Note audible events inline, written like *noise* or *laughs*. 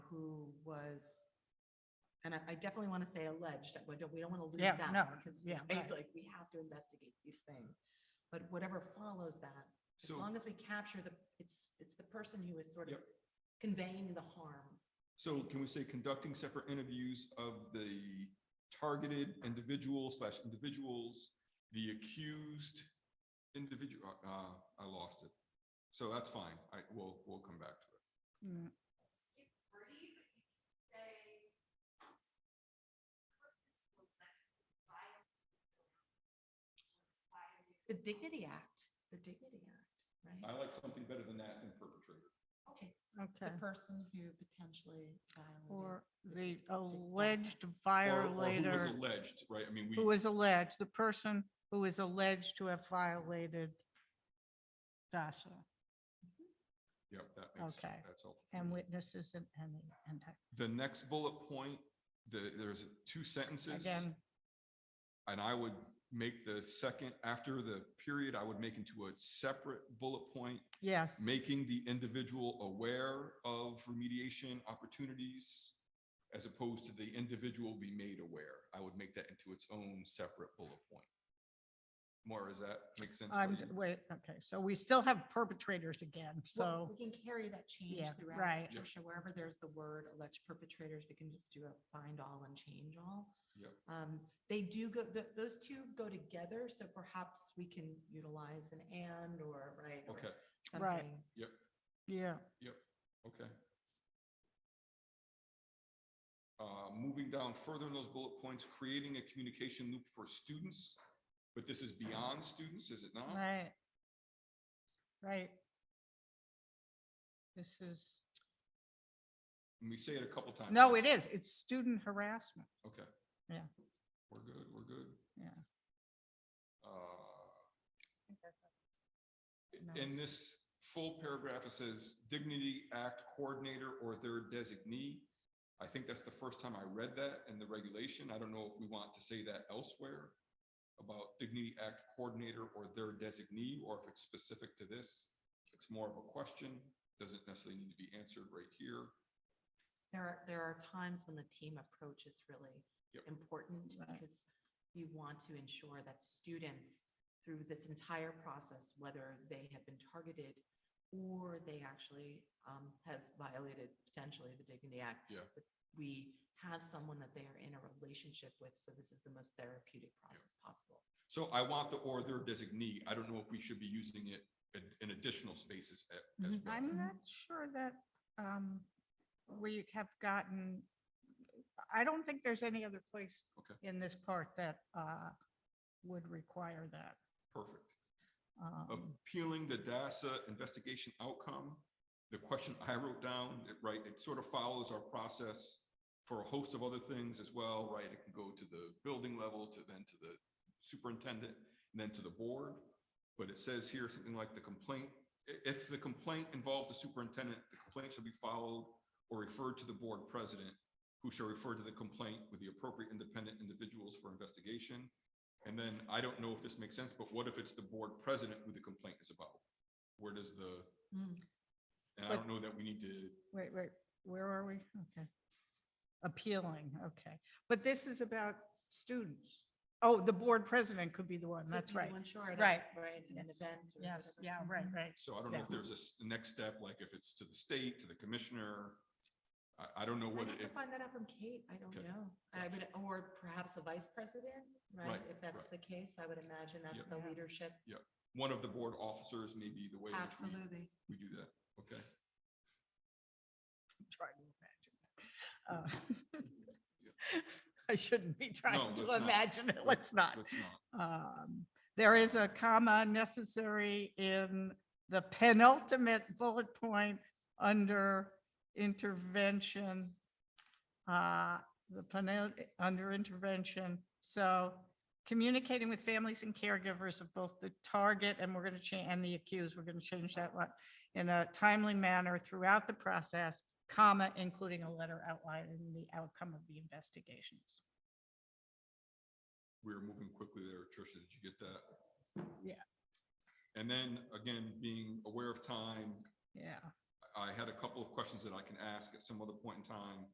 who was, and I, I definitely want to say alleged, we don't, we don't want to lose Yeah, that. no, Because, yeah, right, right. like, we have to investigate these things. But whatever follows that, as So, long as we capture the, it's, it's the person who is sort of Yep. conveying the harm. so can we say conducting separate interviews of the targeted individual slash individuals, the accused individual, uh, I lost it. So that's fine. I, we'll, we'll come back to it. Mm, It's brief, but you can say. The Dignity Act, the Dignity Act, I right? like something better than that than perpetrator. Okay, Okay, the person who potentially violated. or the the dic- dic- alleged Or- or who was violator, Alleged, right? I mean, we. who was alleged, the person who is alleged to have violated DASSA Yep, that makes, Okay. that's helpful. and witnesses and, and the anti. The next bullet point, the, there's two sentences. Again, And I would make the second, after the period, I would make into a separate bullet point, yes, making the individual aware of remediation opportunities as opposed to the individual be made aware. I would make that into its own separate bullet point. Maura, does that make sense? for I'm, you? wait, okay, so we still have perpetrators again, Well, so, We can carry that change Yeah, throughout. right. Yeah. Tricia, wherever there's the word alleged perpetrators, we can just do a find all and change all. Yep. Um, they do go, th- those two go together, so perhaps we can utilize an and or, right? or Okay, Right. something. yeah, okay. Uh, Moving down further in those bullet points, creating a communication loop for students, but this is beyond students, is it not? right. Right. This is, And we say it a couple times. no, it is, it's student harassment, Okay. Yeah. We're good, we're good. yeah. Uh, No, In it's- this full paragraph, it says Dignity Act Coordinator or their designee. I think that's the first time I read that in the regulation. I don't know if we want to say that elsewhere about Dignity Act Coordinator or their designee, or if it's specific to this. It's more of a question, doesn't necessarily need to be answered right here. There are, there are times when the team approach is really Yep. important Right. because you want to ensure that students through this entire process, whether they have been targeted or they actually um, have violated potentially the Dignity Act. Yeah. that We have someone that they are in a relationship with, so this is the most therapeutic process possible. So I want the or their designee. I don't know if we should be using it in- in additional spaces a- as Mhm. well. Mm-hmm. I'm not sure that um, we have gotten, I don't think there's any other place Okay. in this part that uh, would require that. Perfect. Oh. Um, appealing the DASSA investigation outcome. The question I wrote down, it- right, it sort of follows our process for a host of other things as well, right? It can go to the building level, to then to the superintendent, and then to the board. But it says here something like the complaint, i- if the complaint involves the superintendent, the complaint shall be followed or referred to the board president, who shall refer to the complaint with the appropriate independent individuals for investigation. And then, I don't know if this makes sense, but what if it's the board president who the complaint is about? Where does the, and I Hmm. But- don't know that we need to, Wait, wait, where are we? Okay. Appealing, okay. But this is about students. Oh, the board president could be the one, Could that's be the right. one Mm-hmm. short of- Right. Right, in an Yes. event. or Yes, whatever. yeah, right, right. so I don't know if Yeah. there's a s- next step, like if it's to the state, to the commissioner. I, I don't know I'd what have to it, find that out from Kate. I don't Okay. know. I would, or perhaps the vice president, right? Right, If that's right. the case, I would imagine that's Yep. the Yeah. leadership. one of the board officers may be the way in which we, Absolutely. we do that, okay? I'm Trying to imagine. that. Uh, *laughs* I shouldn't be trying let's to not. imagine it, let's not. That's not, Um, There is a comma necessary in the penultimate bullet point under intervention. uh, The penul, under intervention, so communicating with families and caregivers of both the target and we're going to change, and the accused, we're going to change that one in a timely manner throughout the process, comma, including a letter outlining the outcome of the investigations. we were moving quickly there, Tricia, did you get that? Yeah. And then, again, being aware of time, Yeah, I had a couple of questions that I can ask at some other point in time